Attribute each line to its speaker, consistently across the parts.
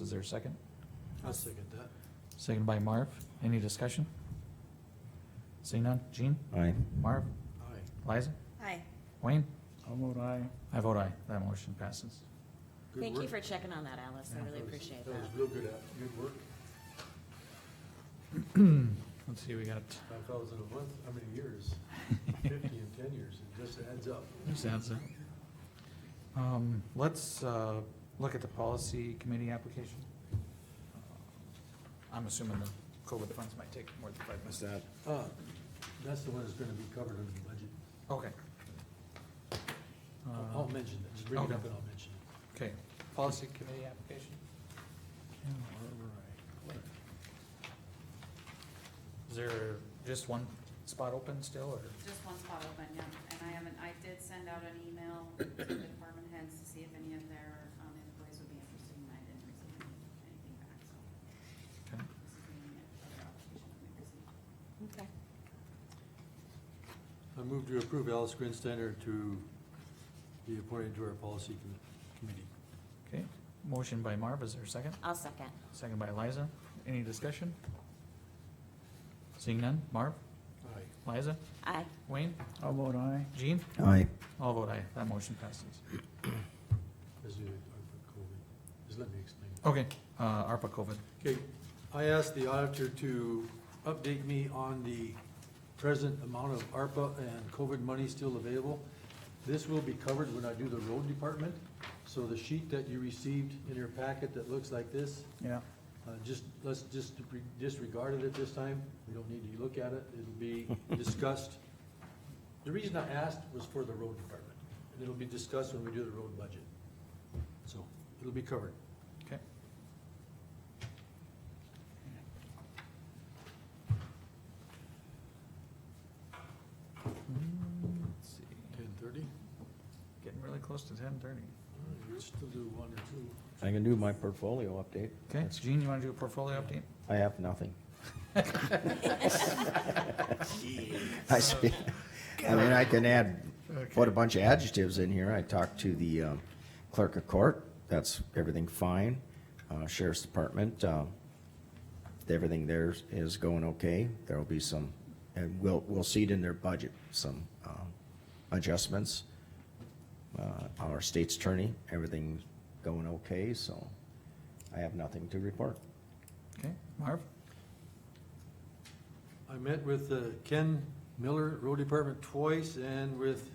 Speaker 1: Is there a second?
Speaker 2: I'll second that.
Speaker 1: Second by Marv. Any discussion? Seeing none. Jean?
Speaker 3: Aye.
Speaker 1: Marv?
Speaker 2: Aye.
Speaker 1: Liza?
Speaker 4: Aye.
Speaker 1: Wayne?
Speaker 5: I'll vote aye.
Speaker 1: I vote aye. That motion passes.
Speaker 2: Good
Speaker 4: Thank you
Speaker 2: work.
Speaker 4: for checking on that, Alice. I
Speaker 1: Yeah.
Speaker 4: really
Speaker 2: That was-
Speaker 4: appreciate
Speaker 2: That was
Speaker 4: that.
Speaker 2: real good, at- good work.
Speaker 1: Let's see, we got,
Speaker 2: Five thousand a month, how many years? Fifty in ten years, it just adds up.
Speaker 1: who's answer? Um, let's, uh, look at the policy committee application. I'm assuming the COVID funds might take more than five minutes.
Speaker 3: What's that?
Speaker 2: Uh, That's the one that's gonna be covered in the budget.
Speaker 1: Okay.
Speaker 2: I'll-
Speaker 1: Uh,
Speaker 3: Oh,
Speaker 2: I'll mention it, just bring it
Speaker 1: okay.
Speaker 2: up and I'll mention it.
Speaker 1: Okay, policy committee application? Is there just one spot open still, or?
Speaker 6: Just one spot open, yeah, and I haven't, I did send out an email to the department heads to see if any of their, um, employees would be interested, and I didn't receive any- anything back, so.
Speaker 1: Okay.
Speaker 6: This is uh, the other application that we received.
Speaker 4: Okay.
Speaker 2: I move to approve Alice Grinsteiner to be appointed to our policy commi- committee.
Speaker 1: Okay, motion by Marv, is there a second?
Speaker 4: I'll second.
Speaker 1: Second by Liza, any discussion? Seeing none, Marv,
Speaker 2: Aye.
Speaker 1: Liza,
Speaker 4: Aye.
Speaker 1: Wayne,
Speaker 5: I'll vote aye.
Speaker 1: Jean,
Speaker 3: Aye.
Speaker 1: all vote aye, that motion passes.
Speaker 2: As you, I put COVID. Just let me explain.
Speaker 1: Okay, uh, ARPA COVID,
Speaker 2: Okay, I asked the auditor to update me on the present amount of ARPA and COVID money still available. This will be covered when I do the road department, so the sheet that you received in your packet that looks like this,
Speaker 5: Yeah,
Speaker 2: uh, just, let's just re- disregard it at this time, we don't need to look at it, it'll be discussed. The reason I asked was for the road department, and it'll be discussed when we do the road budget. So, it'll be covered.
Speaker 1: okay. Hmm, Let's see,
Speaker 2: Ten thirty?
Speaker 1: getting really close to ten thirty.
Speaker 2: You still do one or two.
Speaker 3: I can do my portfolio update.
Speaker 1: Okay,
Speaker 3: That's-
Speaker 1: Jean, you wanna do a portfolio update?
Speaker 3: I have nothing. I spe- I mean, I can add, put a bunch of adjectives in here. I talked to the um, clerk of court, that's everything fine. Uh, Sheriff's Department, um, everything there is going okay. There'll be some, and we'll, we'll see it in their budget, some um, adjustments. Uh, Our state's attorney, everything's going okay, so I have nothing to report.
Speaker 1: Okay, Marv?
Speaker 2: I met with uh, Ken Miller, Road Department, twice, and with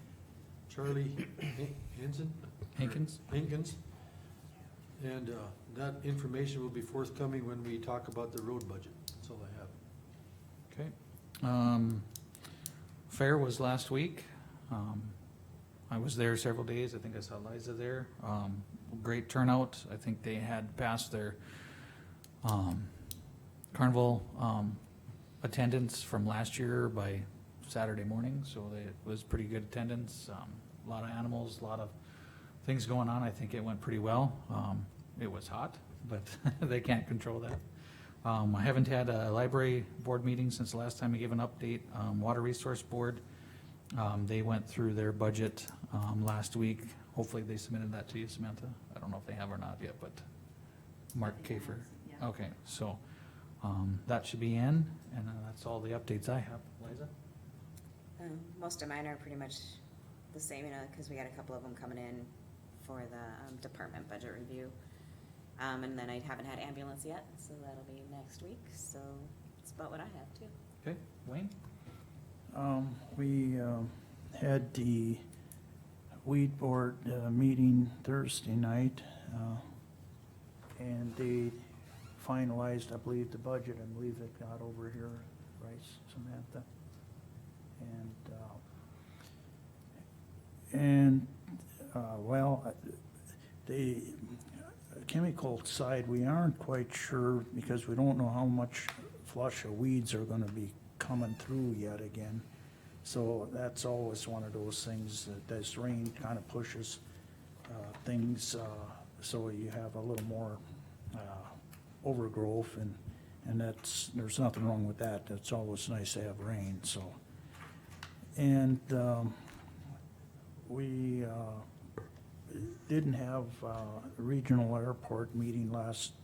Speaker 2: Charlie Han- Hanson?
Speaker 1: Hankins?
Speaker 2: Hankins. And uh, that information will be forthcoming when we talk about the road budget. That's all I have.
Speaker 1: Okay. Um, fair was last week. Um, I was there several days. I think I saw Liza there. Um, great turnout. I think they had passed their, um, carnival, um, attendance from last year by Saturday morning, so they, it was pretty good attendance. Um, a lot of animals, a lot of things going on. I think it went pretty well. Um, it was hot, but they can't control that. Um, I haven't had a library board meeting since the last time I gave an update. Um, Water Resource Board, um, they went through their budget, um, last week. Hopefully they submitted that to you, Samantha. I don't know if they have or not yet, but Mark
Speaker 6: Nothing
Speaker 1: Kafer. Oh.
Speaker 6: else, yeah.
Speaker 1: Okay, so, um, that should be in, and uh, that's all the updates I have. Liza?
Speaker 4: Um, Most of mine are pretty much the same, you know, because we got a couple of them coming in for the um, department budget review. Um, and then I haven't had ambulance yet, so that'll be next week, so that's about what I have too.
Speaker 1: Okay, Wayne?
Speaker 5: um, we, um, had the weed board, uh, meeting Thursday night, uh, and they finalized, I believe, the budget, I believe it got over here, right, Samantha? And, uh, and, uh, well, the chemical side, we aren't quite sure, because we don't know how much flush of weeds are gonna be coming through yet again. So that's always one of those things that this rain kind of pushes uh, things, uh, so you have a little more uh, overgrowth and, and that's, there's nothing wrong with that. It's always nice to have rain, so. And um, we uh, didn't have uh, a regional airport meeting last